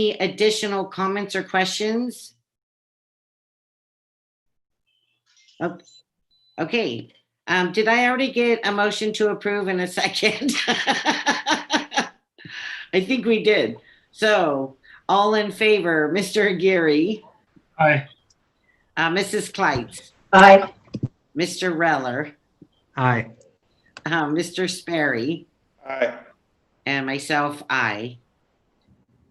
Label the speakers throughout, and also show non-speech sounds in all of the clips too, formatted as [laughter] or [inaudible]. Speaker 1: Any additional comments or questions? Oh, Okay, um, did I already get a motion to approve in a [laughs] second? I think we did. So, all in favor, Mr. Aguirre,
Speaker 2: Aye.
Speaker 1: uh, Mrs. Kleitz,
Speaker 3: Aye.
Speaker 1: Mr. Reller,
Speaker 2: Aye.
Speaker 1: uh, Mr. Sperry,
Speaker 4: Aye.
Speaker 1: and myself, I.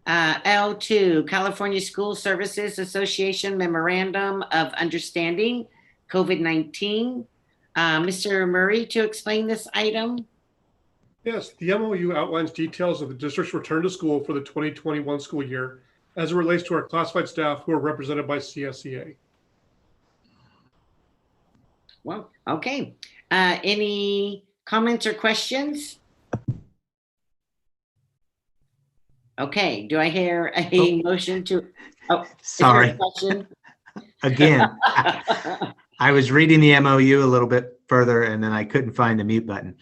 Speaker 1: Uh, L2, California School Services Association Memorandum of Understanding, COVID-19. Uh, Mr. Murray to explain this item.
Speaker 5: Yes, the MOU outlines details of the district's return to school for the 2021 school year as it relates to our classified staff who are represented by E CSEA.
Speaker 1: Well, okay. Uh, any comments or questions? Okay, do I hear a motion to? is there a
Speaker 2: Sorry.
Speaker 1: question?
Speaker 2: Again, I I was reading the MOU a little bit further and then I couldn't find the mute button.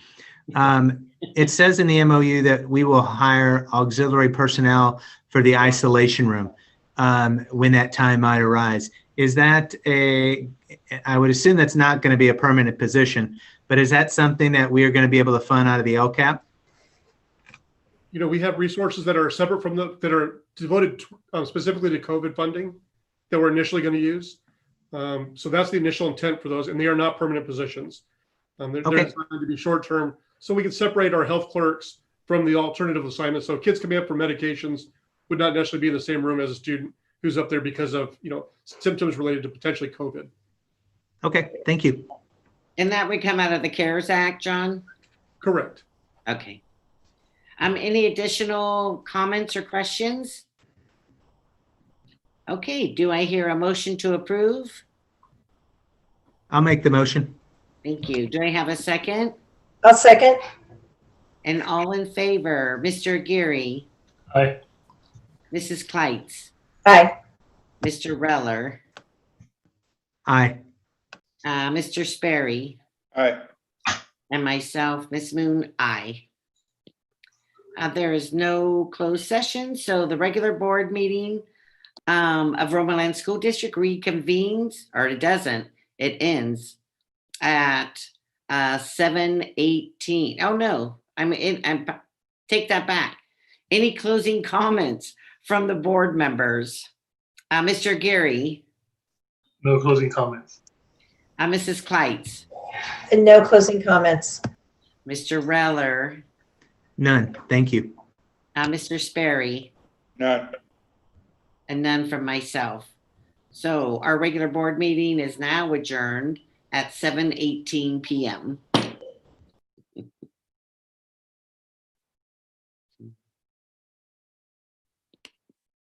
Speaker 2: Um, It says in the MOU that we will hire auxiliary personnel for the isolation room um, when that time might arise. Is that a, I would assume that's not going to be a permanent position, but is that something that we are going to be able to fund out of the LCAP?
Speaker 5: You know, we have resources that are separate from the, that are devoted to- um, specifically to COVID funding that we're initially going to use. Um, So that's the initial intent for those, and they are not permanent positions. Um, They're they're
Speaker 2: Okay.
Speaker 5: designed to be short-term, so we can separate our health clerks from the alternative assignments. So kids coming up for medications would not necessarily be in the same room as a student who's up there because of, you know, symptoms related to potentially COVID.
Speaker 2: Okay, thank you.
Speaker 1: [laughs] And that would come out of the CARES Act, John?
Speaker 5: Correct.
Speaker 1: Okay. Um, any additional comments or questions? Okay, do I hear a motion to approve?
Speaker 2: I'll make the motion.
Speaker 1: Thank you. Do I have a second?
Speaker 3: I'll second.
Speaker 1: And all in favor, Mr. Geary,
Speaker 4: Aye.
Speaker 1: Mrs. Kleitz,
Speaker 3: Aye.
Speaker 1: Mr. Reller,
Speaker 2: Aye.
Speaker 1: uh, Mr. Sperry,
Speaker 4: Aye.
Speaker 1: and myself, Ms. Moon, aye. Uh, there is no closed session, so the regular board meeting um, of Roman Land School District reconvenes, or it doesn't, it ends at uh, seven eighteen. Oh, no, I'm in, I'm, take that back. Any closing comments from the board members? Uh, Mr. Geary,
Speaker 4: No closing comments.
Speaker 1: uh, Mrs. Kleitz,
Speaker 3: And no closing comments.
Speaker 1: Mr. Reller,
Speaker 2: None. Thank you.
Speaker 1: uh, Mr. Sperry.
Speaker 4: None.
Speaker 1: and none from myself. So our regular board meeting is now adjourned at 7:18 PM.